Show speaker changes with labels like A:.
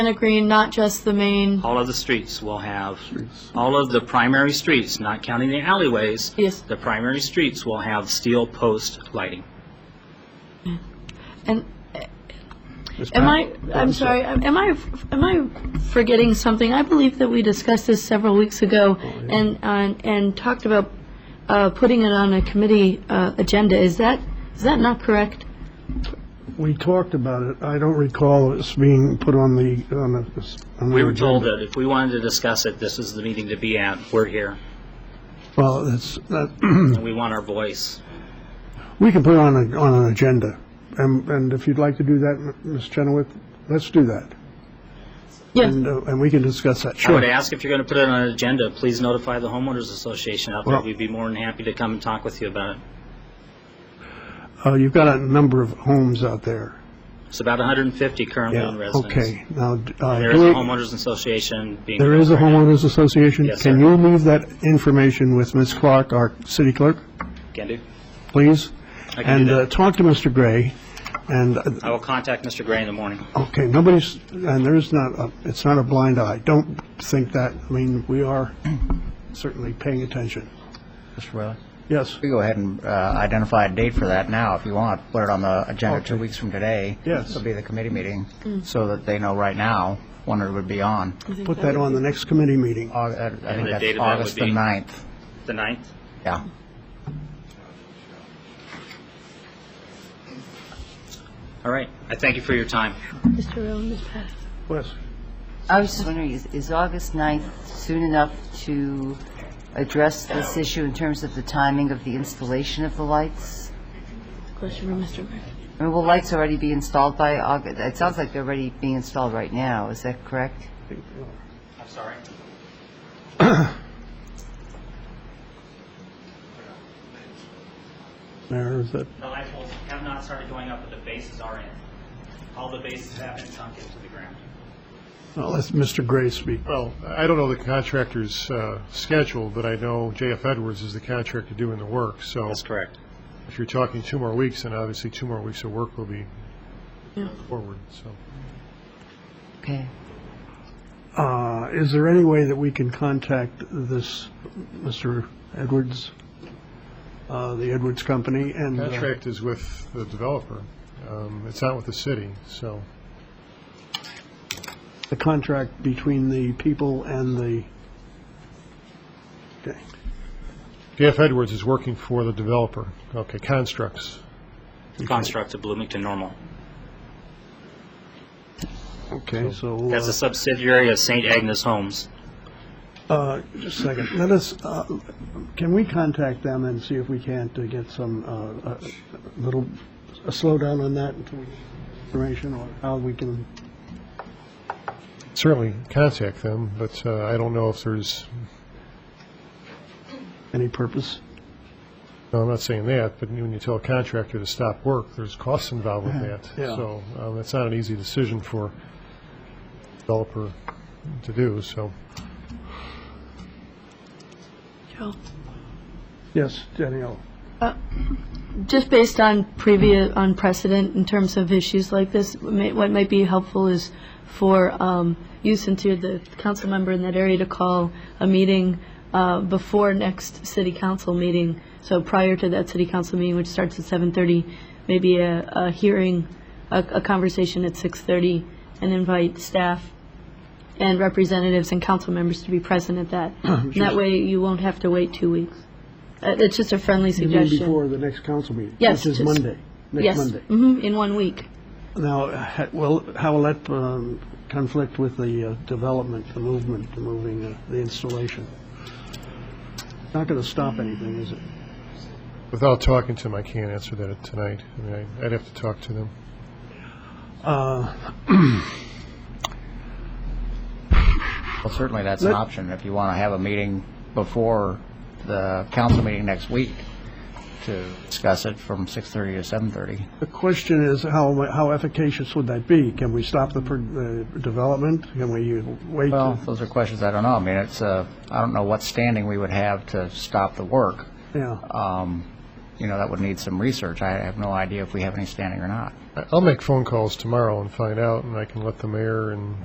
A: Granite Green, not just the main,
B: All of the streets will have, all of the primary streets, not counting the alleyways,
A: yes,
B: the primary streets will have steel post lighting.
A: and am I, I'm sorry, am am I, am I forgetting something? I believe that we discussed this several weeks ago and, and, and talked about uh, putting it on a committee uh, agenda. Is that, is that not correct?
C: We talked about it. I don't recall us being put on the, on the. on the
B: We were told
C: agenda.
B: that if we wanted to discuss it, this is the meeting to be at. We're here,
C: Well, that's, that,
B: and we want our voice.
C: we can put it on, a- on an agenda. And, and if you'd like to do that, Ms. Chenoweth, let's do that.
A: Yes,
C: And, uh, and we can discuss that.
B: I would ask if you're going to put it on an agenda, please notify the homeowners association out there.
C: Well-
B: We'd be more than happy to come and talk with you about it.
C: Uh, you've got a number of homes out there.
B: It's about 150 currently in residence.
C: Okay, now, uh,
B: There is a
C: do it-
B: homeowners association being.
C: there is a homeowners association?
B: Yes, sir.
C: Can you leave that information with Ms. Clark, our city clerk,
B: Can do.
C: please?
B: I can do
C: And, uh,
B: that.
C: talk to Mr. Gray, and uh,
B: I will contact Mr. Gray in the morning.
C: Okay, nobody's, and there's not, a- it's not a blind eye. Don't think that, I mean, we are certainly paying attention.
D: Mr. Riley?
C: Yes,
D: We go ahead and uh, identify a date for that now, if you want. Put it on the agenda two weeks from today.
C: Yes.
D: This will be the committee meeting, so that they know right now when it would be on.
C: put that on the next committee meeting.
D: Au- uh, I I think
B: the date
D: that's
B: of that would
D: August the
B: be-
D: 9th.
B: The 9th?
D: Yeah.
B: All right. I thank you for your time.
A: Mr. Rowe, Ms. Pat.
C: Yes.
E: I was just wondering, is- is August 9th soon enough to address this issue in terms of the timing of the installation of the lights?
A: Question for Mr. Murphy.
E: I mean, will lights already be installed by August? It sounds like they're already being installed right now, is that correct?
B: I'm sorry.
C: Mayor, is that,
B: The lights poles have not started going up, but the bases are in. All the bases have been sunk into the ground.
C: well, let Mr. Gray speak.
F: Well, I don't know the contractor's uh, schedule, but I know JF Edwards is the contractor doing the work, so
B: That's correct.
F: if you're talking two more weeks, then obviously two more weeks of work will be forward, so.
E: Okay.
C: Uh, Is there any way that we can contact this, Mr. Edwards, uh, the Edwards Company? and uh,
F: Contract is with the developer. Um, It's not with the city, so.
C: The contract between the people and the, okay.
F: JF Edwards is working for the developer. Okay, Constructs.
B: Construct of Bloomington Normal.
C: Okay, so. uh,
B: That's a subsidiary of St. Agnes Homes.
C: Uh, Just a second. Let us, uh, can we contact them and see if we can't uh, get some uh, uh, little, a slowdown on that until we information or how we can,
F: Certainly contact them, but uh, I don't know if there's,
C: any purpose?
F: no, I'm not saying that, but when you tell a contractor to stop work, there's costs involved with that.
C: Yeah.
F: So um, it's not an easy decision for developer to do, so.
A: Joe.
C: Yes, Danielle.
A: Just based on previous, on precedent in terms of issues like this, may- what might be helpful is for um, you, since you're the council member in that area, to call a meeting uh, before next city council meeting, so prior to that city council meeting, which starts at 7:30, maybe a a hearing, a a conversation at 6:30, and invite staff and representatives and council members to be present at that. And That way, you won't have to wait two weeks. Uh, It's just a friendly
C: You mean
A: suggestion.
C: before the next council meeting?
A: Yes,
C: Which is
A: just-
C: Monday, next
A: Yes,
C: Monday.
A: mhm, in one week.
C: Now, ha- well, how will that um, conflict with the uh, development, the movement, the moving, uh, the installation? Not going to stop anything, is it?
F: Without talking to them, I can't answer that tonight. I mean, I- I'd have to talk to them.
C: Uh,
D: Well, certainly, that's an option, if you want to have a meeting before the council meeting next week to discuss it from 6:30 to 7:30.
C: The question is, how, how efficacious would that be? Can we stop the, pro- the development? Can we uh, wait?
D: Well, those are questions I don't know. I mean, it's, uh, I don't know what standing we would have to stop the work.
C: Yeah,
D: Um, You know, that would need some research. I have no idea if we have any standing or not.
F: I- I'll make phone calls tomorrow and find out, and I can let the mayor and